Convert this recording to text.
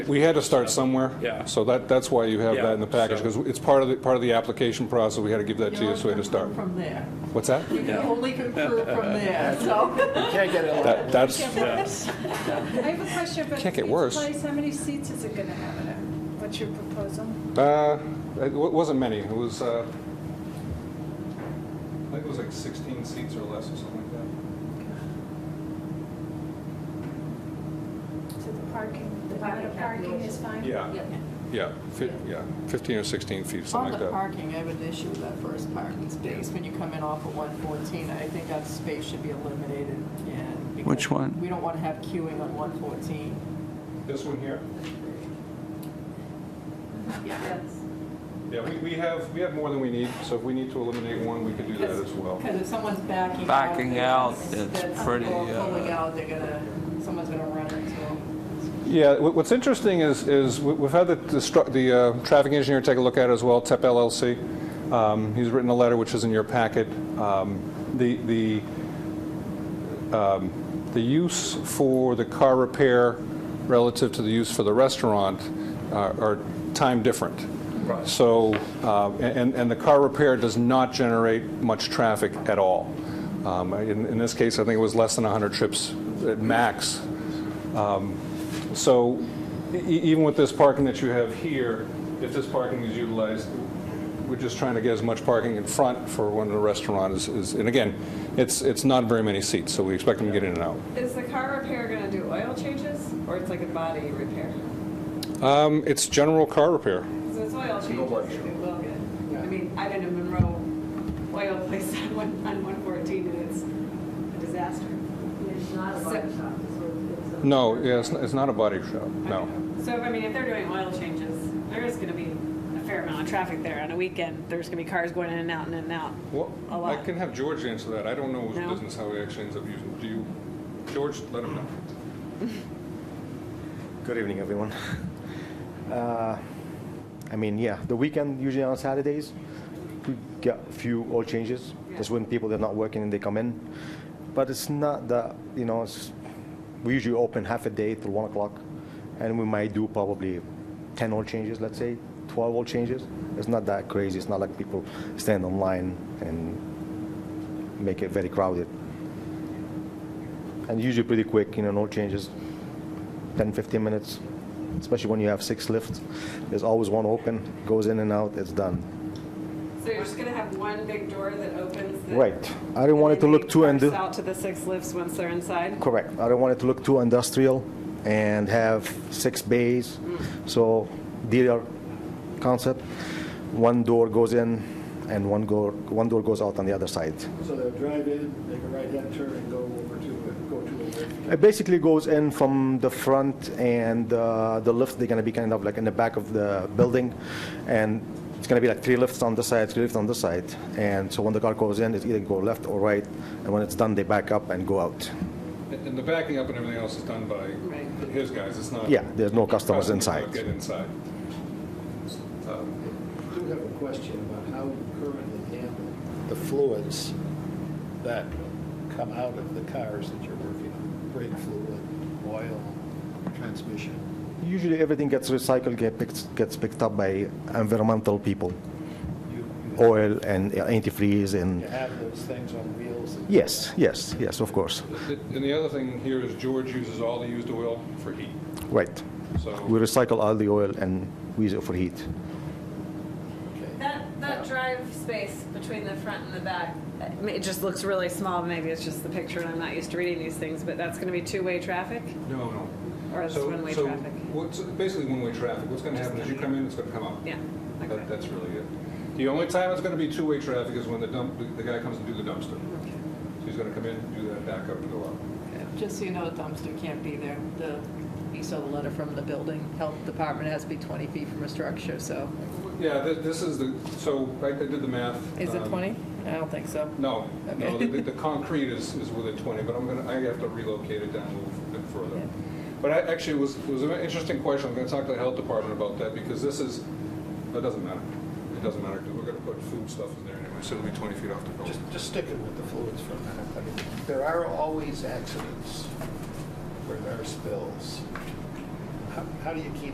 We had to start somewhere. Yeah. So that, that's why you have that in the Yeah, package, so- because it's part of the, part of the application process. We had to give that to you, so we had to start. From there. What's that? You can Yeah. only conclude from there, so. Can't get it. That, that's, uh, Yes. I have a question about Can't get each worse. place. How many seats is it going to have in it? What's your proposal? uh, it wa- wasn't many. It was, uh, I think it was like 16 seats or less or something So the parking, the amount of parking is fine? like that. Yeah, yeah, Fi- yeah, 15 or 16 feet, On something the like that. parking, I have an issue with that first parking space. When you come in off of 114, I think that space should be eliminated and. because Which one? We don't want to have queuing on 114. This one here? Yes. Yeah, we, we have, we have more than we need, so if we need to eliminate one, we could do that as well. Because if someone's backing out. Backing they're- out, it's that's- pretty, Or pulling uh, out, they're gonna, someone's gonna run into them. Yeah, wh- what's interesting is, is we- we've had the, the stru- the uh, traffic engineer take a look at it as well, TEP LLC. Um, He's written a letter, which is in your packet. Um, The, the, um, the use for the car repair relative to the use for the restaurant uh, are time different. Right. So, uh, and, and the car repair does not generate much traffic at all. Um, In, in this case, I think it was less than 100 trips at max so e- even with this parking that you have here, if this parking is utilized, we're just trying to get as much parking in front for when the restaurant is, is- and again, it's, it's not very many seats, so we expect them to get in and out. Is the car repair gonna do oil changes, or it's like a body repair? Um, It's general car repair. Because it's oil changes, it will get, I mean, I've been in Monroe oil place on one, on one fourteen, and it's a disaster. It's not a So- body shop, it's a- it's a. No, yeah, it's not- it's not a body shop, no. So, I mean, if they're doing oil changes, there is gonna be a fair amount of traffic there on a weekend, there's gonna be cars going in and out and in and out. Well, A I lot. can have George answer that. I don't know his No? business, how he actually ends up using, do you, George, let him know. Good evening, everyone. Uh, I mean, yeah, the weekend usually on Saturdays, we get a few oil changes. That's when people are not working and they come in. But it's not that, you know, it's, we usually open half a day till one o'clock, and we might do probably 10 oil changes, let's say, 12 oil changes. It's not that crazy. It's not like people stand online and make it very crowded. And usually pretty quick, you know, no changes, 10, 15 minutes, especially when you have six lifts. There's always one open, goes in and out, it's done. So you're just gonna have one big door that opens? that- Right. I don't want it to look too And they undo- parse out to the six lifts once they're inside? Correct. I don't want it to look too industrial and have six bays. So DDR concept, one door goes in and one door, one door goes out on the other side. So they'll drive in, make a right-hand turn and go over to, go to a It basically goes in from the front and uh, the lift, they're gonna be kind of like in the back of the building. And it's gonna be like three lifts on this side, three lifts on this side. And so when the car goes in, it's either go left or right. And when it's done, they back up and go out. And and the backing up and everything else is done by Right. his guys, it's not. Yeah, there's no customers don't inside. Get inside. Um, I do have a question about how you currently handle the fluids that come out of the cars that you're working on, brake fluid, oil, transmission. Usually everything gets recycled, get picked, gets picked up by environmental people, You- you- oil and antifreeze You and, have those things on wheels. that- yes, yes, yes, of course, And the other thing here is George uses all the used oil for heat, right. We so. recycle all the oil and we use it for heat. Okay. That, that drive space between the front and the back, it ma- it just looks really small. Maybe it's just the picture and I'm not used to reading these things, but that's going to be two-way traffic No, no. or it's So- one-way so traffic? what's- basically one-way traffic. What's going to happen is you come in, it's going to come out. Yeah. That- Okay. That's really it. The only time it's going to be two-way traffic is when the dump, the guy comes to do the dumpster. So he's going to come in, do that backup and go out. Just so you know, the dumpster can't be there. The, you saw the letter from the building, health department has to be 20 feet from a structure, so. Yeah, thi- this is the, so I I did the math. Is it um, 20? I don't think so. No, no, Okay. the, the concrete is, is within 20, but I'm gonna, I have to relocate it down a little bit further. Yeah. But I, actually, it was, it was an interesting question, I'm gonna talk to the health department about that, because this is, it doesn't matter. It doesn't matter, because we're gonna put food stuff in there anyway, so it'll be 20 feet off the building. Just, just sticking with the fluids for a minute. I mean, There are always accidents where there are spills. How, how do you keep